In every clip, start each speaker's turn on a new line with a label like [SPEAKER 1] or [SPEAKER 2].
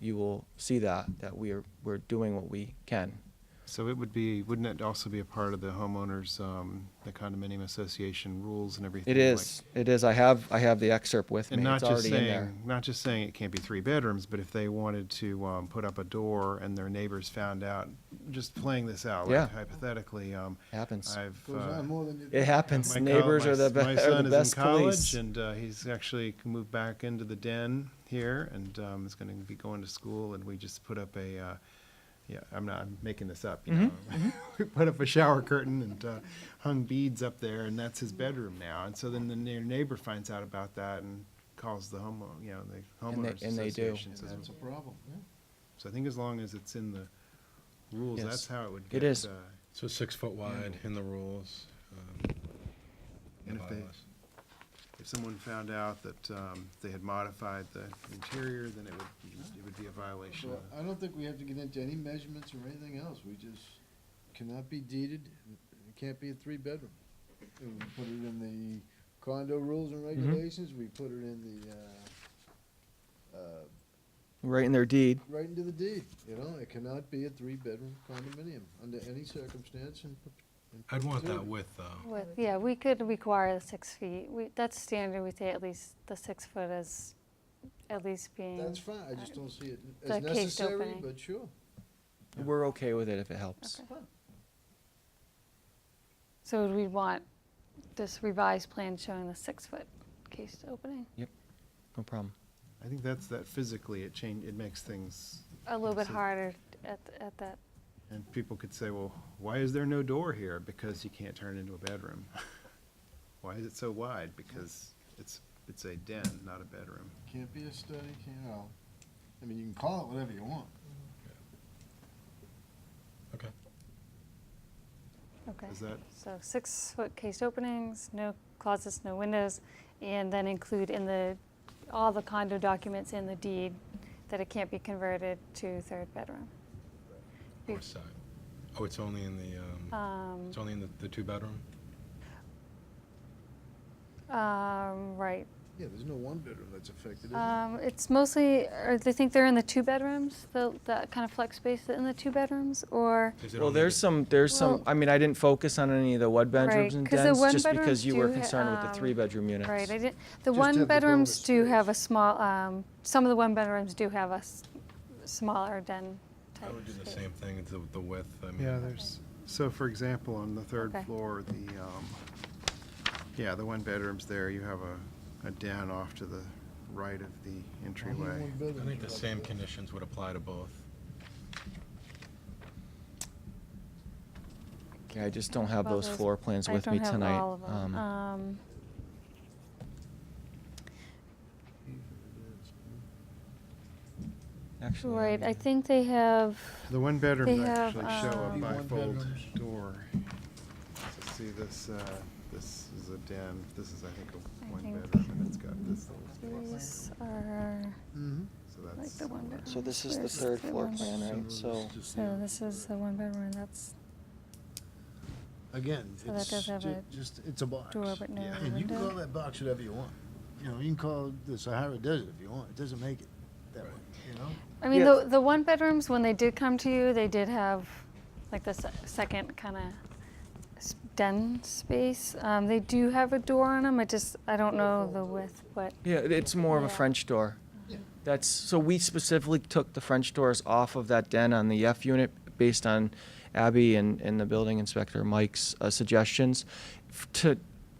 [SPEAKER 1] you will see that, that we are, we're doing what we can.
[SPEAKER 2] So it would be, wouldn't it also be a part of the homeowners, um, the condominium association rules and everything?
[SPEAKER 1] It
[SPEAKER 2] like-
[SPEAKER 1] is, it is, I have, I have the excerpt with
[SPEAKER 2] And
[SPEAKER 1] me,
[SPEAKER 2] not
[SPEAKER 1] it's
[SPEAKER 2] just
[SPEAKER 1] already in there.
[SPEAKER 2] saying, not just saying it can't be three bedrooms, but if they wanted to, um, put up a door and their neighbors found out, just playing this out,
[SPEAKER 1] Yeah.
[SPEAKER 2] like hypothetically, um,
[SPEAKER 1] Happens.
[SPEAKER 2] I've.
[SPEAKER 3] Goes
[SPEAKER 2] uh,
[SPEAKER 3] on more than you.
[SPEAKER 1] It happens,
[SPEAKER 2] my co-
[SPEAKER 1] neighbors
[SPEAKER 2] my
[SPEAKER 1] are the
[SPEAKER 2] s-
[SPEAKER 1] be-
[SPEAKER 2] My
[SPEAKER 1] are
[SPEAKER 2] son
[SPEAKER 1] the
[SPEAKER 2] is
[SPEAKER 1] best
[SPEAKER 2] in college
[SPEAKER 1] police.
[SPEAKER 2] and, uh, he's actually moved back into the den here and, um, is gonna be going to school and we just put up a, uh, yeah, I'm not, I'm making this up, you know.
[SPEAKER 1] Mm-hmm.
[SPEAKER 2] We put up a shower curtain and, uh, hung beads up there and that's his bedroom now. And so then the neigh- neighbor finds out about that and calls the homeowner, you know, the
[SPEAKER 1] And they-
[SPEAKER 2] homeowners
[SPEAKER 1] and they do.
[SPEAKER 2] association.
[SPEAKER 3] And
[SPEAKER 2] says,
[SPEAKER 3] that's a problem, yeah.
[SPEAKER 2] So I think as long as it's in the rules,
[SPEAKER 1] Yes.
[SPEAKER 2] that's how it would
[SPEAKER 1] It
[SPEAKER 2] get.
[SPEAKER 1] is.
[SPEAKER 2] uh,
[SPEAKER 4] So six foot wide in the rules. um, in the
[SPEAKER 2] And if they-
[SPEAKER 4] bylaws.
[SPEAKER 2] If someone found out that um, they had modified the interior, then it would, it would be a violation.
[SPEAKER 3] So
[SPEAKER 2] of-
[SPEAKER 3] I don't think we have to get into any measurements or anything else, we just cannot be deeded, it can't be a three-bedroom. And We put it in the condo rules and regulations, we put it in the, uh, uh,
[SPEAKER 1] Right in their deed,
[SPEAKER 3] right into the deed, you know, it cannot be a three-bedroom condominium under any circumstance and.
[SPEAKER 4] I'd want that with, though.
[SPEAKER 5] With, yeah, we could require the six feet. We, that's standard, we say at least the six foot is at least being,
[SPEAKER 3] That's fine, I just don't see it as
[SPEAKER 5] The case
[SPEAKER 3] necessary,
[SPEAKER 5] opening.
[SPEAKER 3] but sure.
[SPEAKER 1] we're okay with it if it helps.
[SPEAKER 5] so would we want this revised plan showing the six foot case opening?
[SPEAKER 1] No problem.
[SPEAKER 2] I think that's, that physically, it change, it makes things,
[SPEAKER 5] A little bit
[SPEAKER 2] So-
[SPEAKER 5] harder at, at that,
[SPEAKER 2] and people could say, well, why is there no door here? Because you can't turn it into a bedroom. Why is it so wide? Because it's, it's a den, not a bedroom.
[SPEAKER 3] Can't be a study, can't, well, I mean, you can call it whatever you want.
[SPEAKER 4] Okay.
[SPEAKER 5] okay.
[SPEAKER 2] Is that,
[SPEAKER 5] So six foot case openings, no closets, no windows, and then include in the, all the condo documents in the deed that it can't be converted to third bedroom. Be-
[SPEAKER 4] North side. Oh, it's only in the, um,
[SPEAKER 5] Um,
[SPEAKER 4] it's only in the, the two bedroom?
[SPEAKER 5] um, right,
[SPEAKER 3] Yeah, there's no one-bedroom that's affected, is there?
[SPEAKER 5] Um, it's mostly, or they think they're in the two bedrooms, the, that kind of flex space in the two bedrooms, or,
[SPEAKER 4] Is it
[SPEAKER 1] Well,
[SPEAKER 4] only the-
[SPEAKER 1] there's some, there's some,
[SPEAKER 5] Well-
[SPEAKER 1] I mean, I didn't focus on any of the one bedrooms
[SPEAKER 5] Right,
[SPEAKER 1] and
[SPEAKER 5] 'cause the
[SPEAKER 1] dens,
[SPEAKER 5] one
[SPEAKER 1] just because
[SPEAKER 5] bedrooms
[SPEAKER 1] you were
[SPEAKER 5] do ha-
[SPEAKER 1] concerned with the
[SPEAKER 5] um,
[SPEAKER 1] three bedroom units.
[SPEAKER 5] right, I didn't,
[SPEAKER 3] Just have
[SPEAKER 5] the
[SPEAKER 3] the
[SPEAKER 5] one
[SPEAKER 3] dormer
[SPEAKER 5] bedrooms do have a
[SPEAKER 3] space.
[SPEAKER 5] small, um, some of the one bedrooms do have a s- smaller den type.
[SPEAKER 4] I would do the
[SPEAKER 5] space.
[SPEAKER 4] same thing, the, the width, I mean.
[SPEAKER 2] yeah, there's, so for example, on the third
[SPEAKER 5] Okay.
[SPEAKER 2] floor, the, um, yeah, the one bedroom's there, you have a, a den off to the right of the entryway.
[SPEAKER 4] I think the same conditions would apply to both.
[SPEAKER 1] Okay, I just don't have
[SPEAKER 5] Well,
[SPEAKER 1] those
[SPEAKER 5] those-
[SPEAKER 1] floor plans
[SPEAKER 5] I
[SPEAKER 1] with me
[SPEAKER 5] don't have
[SPEAKER 1] tonight.
[SPEAKER 5] all of 'em.
[SPEAKER 1] Um,
[SPEAKER 5] Um,
[SPEAKER 1] Actually, I
[SPEAKER 5] right,
[SPEAKER 1] mean,
[SPEAKER 5] I think they have,
[SPEAKER 2] The one bedrooms
[SPEAKER 5] They have,
[SPEAKER 2] actually show a
[SPEAKER 5] um,
[SPEAKER 2] bifold
[SPEAKER 3] Bedrooms.
[SPEAKER 2] door. So see this, uh, this is a den, this is I think
[SPEAKER 5] I
[SPEAKER 2] a one
[SPEAKER 5] think-
[SPEAKER 2] bedroom and it's got this little space.
[SPEAKER 5] these are,
[SPEAKER 3] Mm-hmm.
[SPEAKER 2] So
[SPEAKER 5] like
[SPEAKER 2] that's
[SPEAKER 5] the one
[SPEAKER 2] similar.
[SPEAKER 5] bedroom.
[SPEAKER 1] So this is the
[SPEAKER 5] There's
[SPEAKER 1] third floor
[SPEAKER 5] one
[SPEAKER 1] plan,
[SPEAKER 5] bedroom.
[SPEAKER 1] right? So,
[SPEAKER 5] So this is the one bedroom, and that's
[SPEAKER 3] Again,
[SPEAKER 5] So that
[SPEAKER 3] it's
[SPEAKER 5] does have
[SPEAKER 3] ju-
[SPEAKER 5] a
[SPEAKER 3] just, it's a box.
[SPEAKER 5] door, but no
[SPEAKER 2] Yeah.
[SPEAKER 3] And you can call
[SPEAKER 5] window.
[SPEAKER 3] that box whatever you want. You know, you can call the Sahara Desert if you want. It doesn't make it that way, you know?
[SPEAKER 5] I mean,
[SPEAKER 1] Yeah.
[SPEAKER 5] the, the one bedrooms, when they did come to you, they did have like the se- second kind of den space. Um, they do have a door on them. I just, I don't know the width, but
[SPEAKER 1] yeah, it- it's more of a
[SPEAKER 5] Yeah.
[SPEAKER 1] French door.
[SPEAKER 3] Yeah.
[SPEAKER 1] That's, so we specifically took the French doors off of that den on the F unit based on Abby and, and the building inspector Mike's uh, suggestions. F- To,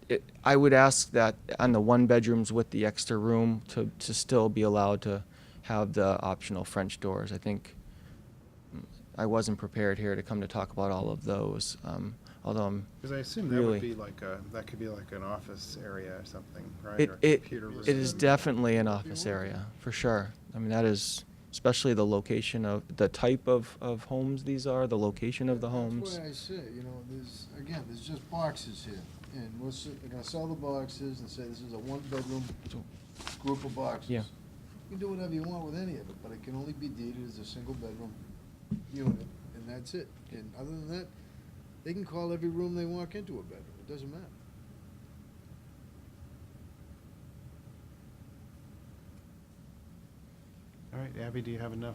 [SPEAKER 1] it- I would ask that on the one bedrooms with the extra room to, to still be allowed to have the optional French doors. I think mm, I wasn't prepared here to come to talk about all of those, um, although I'm
[SPEAKER 2] Cause I assume that would
[SPEAKER 1] Really?
[SPEAKER 2] be like a, that could be like an office area or something, right?
[SPEAKER 1] It,
[SPEAKER 2] Or a
[SPEAKER 1] it,
[SPEAKER 2] computer room.
[SPEAKER 1] it is definitely an office
[SPEAKER 3] want.
[SPEAKER 1] area, for sure. I mean, that is, especially the location of, the type of, of homes these are, the location of the homes.
[SPEAKER 3] That's why I say, you know, there's, again, there's just boxes here. And we're, s- they're gonna sell the boxes and say this is a one-bedroom group of boxes.
[SPEAKER 1] Yeah.
[SPEAKER 3] You can do whatever you want with any of it, but it can only be deeded as a single-bedroom unit, and that's it. And other than that, they can call every room they walk into a bedroom. It doesn't matter.
[SPEAKER 2] All right, Abby, do you have enough